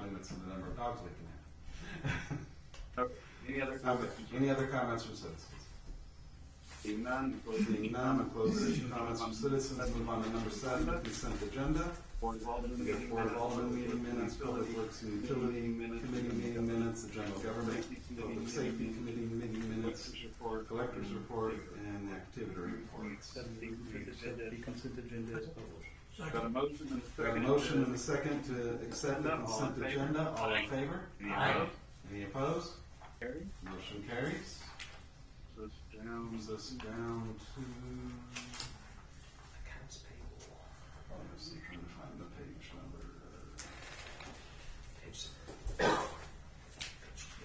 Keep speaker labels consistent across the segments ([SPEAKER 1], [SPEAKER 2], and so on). [SPEAKER 1] limits on the number of dogs we can have.
[SPEAKER 2] Okay. Any other
[SPEAKER 1] Okay,
[SPEAKER 2] comments?
[SPEAKER 1] any other comments from citizens?
[SPEAKER 2] Seeing none, close the
[SPEAKER 1] Seeing none, I'm closing comments from citizens, move on to number seven, the consent agenda.
[SPEAKER 2] Board of Alderman
[SPEAKER 1] We have
[SPEAKER 2] meeting
[SPEAKER 1] Board of
[SPEAKER 2] minutes.
[SPEAKER 1] Alderman meeting minutes, Public Works and Utility
[SPEAKER 2] minutes,
[SPEAKER 1] Committee meeting minutes, the General Government, Public Safety Committee meeting minutes,
[SPEAKER 2] Collector's report.
[SPEAKER 1] Collector's Report, and Activity Reports.
[SPEAKER 3] That the consent agenda- the consent agenda is published.
[SPEAKER 2] Got a motion and
[SPEAKER 1] Got a
[SPEAKER 2] a second.
[SPEAKER 1] motion and a second to accept the
[SPEAKER 2] All in
[SPEAKER 1] consent
[SPEAKER 2] favor?
[SPEAKER 1] agenda, all in favor?
[SPEAKER 2] Any opposed?
[SPEAKER 1] Any opposed?
[SPEAKER 2] Carried.
[SPEAKER 1] Motion carries.
[SPEAKER 2] So it's down.
[SPEAKER 1] Moves us down to. Accounts payable. I'm just trying to find the page number.
[SPEAKER 4] Page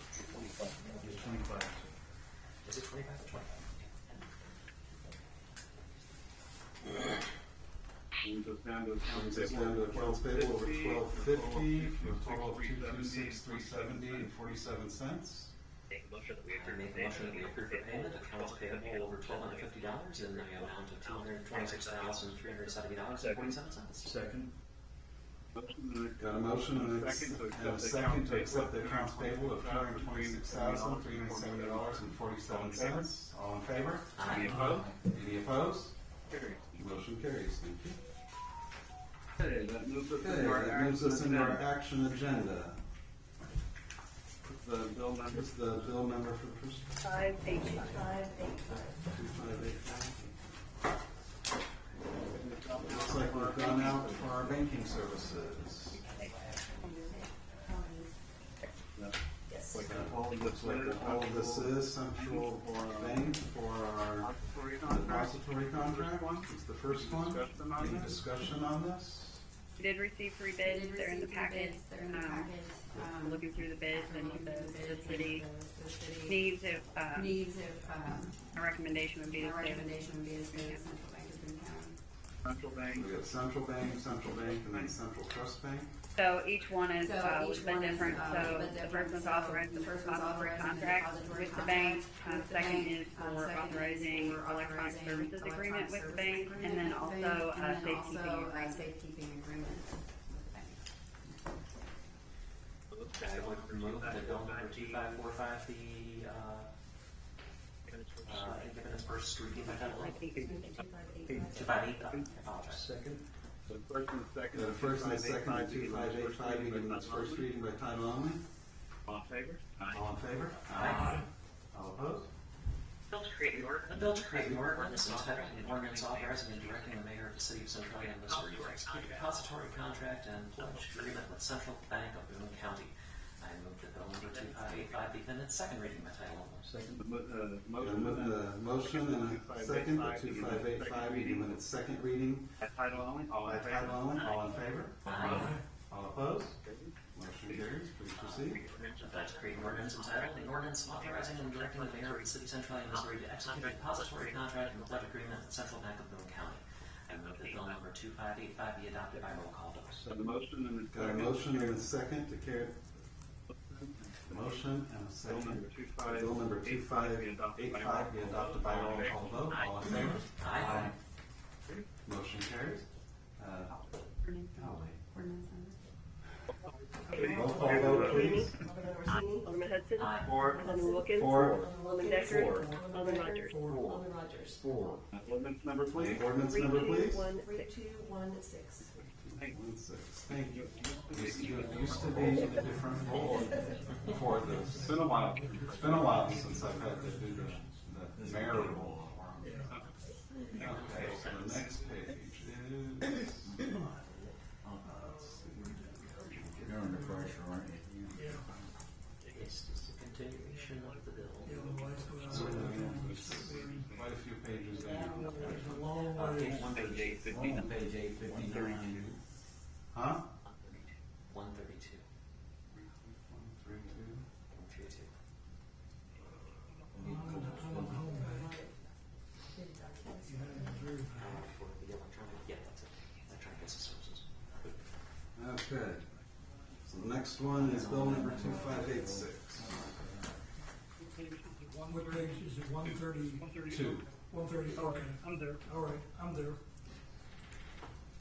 [SPEAKER 3] It's twenty-five.
[SPEAKER 4] Is it twenty-five or twenty-five?
[SPEAKER 2] Brings us down to
[SPEAKER 1] Brings
[SPEAKER 2] accounts
[SPEAKER 1] us down to
[SPEAKER 2] payable.
[SPEAKER 1] accounts payable over twelve fifty, for a total of two two
[SPEAKER 2] 226,370.
[SPEAKER 1] six, three seventy and forty-seven cents.
[SPEAKER 5] Make a motion that we
[SPEAKER 4] I
[SPEAKER 5] approve
[SPEAKER 4] make
[SPEAKER 5] the
[SPEAKER 4] a motion that we
[SPEAKER 5] payment.
[SPEAKER 4] approve the payment of accounts payable over twelve hundred fifty dollars in the amount of two hundred twenty-six thousand, three hundred seventy dollars and forty-seven cents.
[SPEAKER 3] Second,
[SPEAKER 2] Motion and a-
[SPEAKER 1] Got a motion and a
[SPEAKER 2] Second to accept
[SPEAKER 1] and a
[SPEAKER 2] the
[SPEAKER 1] second to
[SPEAKER 2] accounts
[SPEAKER 1] accept the
[SPEAKER 2] payable.
[SPEAKER 1] accounts payable of two hundred twenty-six thousand, three hundred seventy dollars and forty-seven cents. All in favor?
[SPEAKER 2] Any opposed?
[SPEAKER 1] Any opposed?
[SPEAKER 2] Carried.
[SPEAKER 1] Motion carries, thank you.
[SPEAKER 2] Okay, that moves us
[SPEAKER 1] Okay,
[SPEAKER 2] into our
[SPEAKER 1] that moves us
[SPEAKER 2] action
[SPEAKER 1] into our
[SPEAKER 2] agenda.
[SPEAKER 1] action agenda.
[SPEAKER 2] The bill number
[SPEAKER 1] Here's the bill number for the first.
[SPEAKER 6] Five eight five eight five.
[SPEAKER 1] Looks like we've gone out for our banking services.
[SPEAKER 6] Yes.
[SPEAKER 1] Looks like all- Looks like all of this is central bank for our
[SPEAKER 2] depository contract.
[SPEAKER 1] depository contract. It's the first one.
[SPEAKER 2] Discussion on
[SPEAKER 1] Any
[SPEAKER 2] this?
[SPEAKER 1] discussion on this?
[SPEAKER 7] We did receive three
[SPEAKER 8] They
[SPEAKER 7] bids,
[SPEAKER 8] did
[SPEAKER 7] they're in the
[SPEAKER 8] receive three
[SPEAKER 7] packet.
[SPEAKER 8] bids. They're in the
[SPEAKER 7] Um,
[SPEAKER 8] packet.
[SPEAKER 7] um, Looking through the bids and
[SPEAKER 8] Um,
[SPEAKER 7] the, the
[SPEAKER 8] the-
[SPEAKER 7] city
[SPEAKER 8] the- the city
[SPEAKER 7] needs, if, uh,
[SPEAKER 8] Needs if, um,
[SPEAKER 7] a recommendation would be to
[SPEAKER 8] our
[SPEAKER 7] stay
[SPEAKER 8] recommendation would be to stay with central bank of Boone County.
[SPEAKER 2] Central bank.
[SPEAKER 1] We got central bank, central bank, and then central trust bank.
[SPEAKER 7] So each one is,
[SPEAKER 8] So
[SPEAKER 7] uh, a
[SPEAKER 8] each
[SPEAKER 7] little
[SPEAKER 8] one
[SPEAKER 7] bit
[SPEAKER 8] is,
[SPEAKER 7] different,
[SPEAKER 8] uh,
[SPEAKER 7] so
[SPEAKER 8] a bit
[SPEAKER 7] the
[SPEAKER 8] different.
[SPEAKER 7] first one's
[SPEAKER 8] So
[SPEAKER 7] authorizing
[SPEAKER 8] the
[SPEAKER 7] the
[SPEAKER 8] first one's
[SPEAKER 7] depository
[SPEAKER 8] authorizing the
[SPEAKER 7] contract
[SPEAKER 8] depository
[SPEAKER 7] with the bank.
[SPEAKER 8] contract
[SPEAKER 7] Uh,
[SPEAKER 8] with the
[SPEAKER 7] second
[SPEAKER 8] bank.
[SPEAKER 7] is
[SPEAKER 8] Um,
[SPEAKER 7] for
[SPEAKER 8] second is
[SPEAKER 7] authorizing
[SPEAKER 8] for
[SPEAKER 7] electronic
[SPEAKER 8] authorizing
[SPEAKER 7] services
[SPEAKER 8] electronic
[SPEAKER 7] agreement with the
[SPEAKER 8] services
[SPEAKER 7] bank,
[SPEAKER 8] agreement
[SPEAKER 7] and then
[SPEAKER 8] with the bank,
[SPEAKER 7] also,
[SPEAKER 8] and
[SPEAKER 7] uh,
[SPEAKER 8] then
[SPEAKER 7] safekeeping
[SPEAKER 8] also, uh,
[SPEAKER 7] agreement.
[SPEAKER 8] Safekeeping agreement with the bank.
[SPEAKER 4] I would remove the bill number two five four five, the, uh, uh, independence versus street independent. Two five eight, I apologize.
[SPEAKER 3] second,
[SPEAKER 2] The first and second.
[SPEAKER 1] We got a first and a second, on
[SPEAKER 2] Two
[SPEAKER 1] two
[SPEAKER 2] five
[SPEAKER 1] five eight five,
[SPEAKER 2] reading
[SPEAKER 1] meeting
[SPEAKER 2] by
[SPEAKER 1] its first
[SPEAKER 2] title
[SPEAKER 1] reading by title only.
[SPEAKER 2] only. All in favor?
[SPEAKER 1] All in favor?
[SPEAKER 4] Aye.
[SPEAKER 1] All opposed?
[SPEAKER 5] Bill to create an
[SPEAKER 4] A
[SPEAKER 5] ordinance.
[SPEAKER 4] bill to create an ordinance entitled an ordinance authorizing and directing the mayor of the city of Centralia, Missouri to execute a depository contract and pledge agreement with Central Bank of Boone County. I move that bill number two five eight five be given its second reading by title only.
[SPEAKER 3] second,
[SPEAKER 2] The mo- uh,
[SPEAKER 1] Yeah,
[SPEAKER 2] motion.
[SPEAKER 1] with the motion and a second, the two five eight five, meeting when its second reading,
[SPEAKER 2] By title only, all
[SPEAKER 1] by
[SPEAKER 2] in
[SPEAKER 1] title
[SPEAKER 2] favor?
[SPEAKER 1] only, all in favor?
[SPEAKER 4] Aye.
[SPEAKER 1] All opposed?
[SPEAKER 2] Okay.
[SPEAKER 1] Motion carries, please proceed.
[SPEAKER 4] I'd like to create an ordinance entitled, an ordinance authorizing and directing the mayor of the city of Centralia, Missouri to execute a depository contract and pledge agreement with Central Bank of Boone County. I move that bill number two five eight five be adopted by roll call vote.
[SPEAKER 2] So the motion and the
[SPEAKER 1] Got a
[SPEAKER 2] second.
[SPEAKER 1] motion and a second to carry, motion and a
[SPEAKER 2] Bill number
[SPEAKER 1] second.
[SPEAKER 2] two five.
[SPEAKER 1] Bill number
[SPEAKER 2] eight
[SPEAKER 1] two five
[SPEAKER 2] be adopted
[SPEAKER 1] eight
[SPEAKER 2] by
[SPEAKER 1] five be
[SPEAKER 2] roll call.
[SPEAKER 1] adopted by
[SPEAKER 2] All
[SPEAKER 1] roll
[SPEAKER 2] in
[SPEAKER 1] call vote, all in favor?
[SPEAKER 4] Aye.
[SPEAKER 1] Motion carries. Uh,
[SPEAKER 8] Oh.
[SPEAKER 1] I'll wait.
[SPEAKER 2] favor?
[SPEAKER 8] Ordinance number.
[SPEAKER 1] Roll call vote, please.
[SPEAKER 6] Alderman Orsini. Alderman Hudson.
[SPEAKER 8] Uh,
[SPEAKER 4] Aye.
[SPEAKER 2] Four.
[SPEAKER 6] Alderman Wilkins.
[SPEAKER 1] Four.
[SPEAKER 6] Alderman Decker.
[SPEAKER 1] Four.
[SPEAKER 6] Alderman Rogers.
[SPEAKER 1] Four.
[SPEAKER 8] Alderman Rogers.
[SPEAKER 1] Four.
[SPEAKER 2] Ordinance number, please.
[SPEAKER 1] Any Ordinance number, please.
[SPEAKER 6] One,
[SPEAKER 8] Three, two, one, six.
[SPEAKER 1] One six. Thank you. Used to, it used to be a different role for this. It's been a while. It's been a while since I've had to do the, the mayor role. Okay, so the next page is. Uh, let's see.
[SPEAKER 9] You're under pressure, aren't you?
[SPEAKER 4] It's just a continuation of the bill.
[SPEAKER 1] So, uh, Quite a few pages down.
[SPEAKER 4] Uh,
[SPEAKER 9] Okay, one
[SPEAKER 5] Page eight
[SPEAKER 9] I'm on page eight fifty-nine.
[SPEAKER 1] Huh?
[SPEAKER 4] One thirty-two,
[SPEAKER 1] One, three, two.
[SPEAKER 4] one three two. Uh, for the electronic, yeah, that's it. Electronic Business Services.
[SPEAKER 1] Okay. So the next one is bill number two five eight six.
[SPEAKER 10] What page is it, one thirty,
[SPEAKER 1] Two.
[SPEAKER 10] one thirty, okay,
[SPEAKER 3] I'm there.
[SPEAKER 10] all right, I'm there.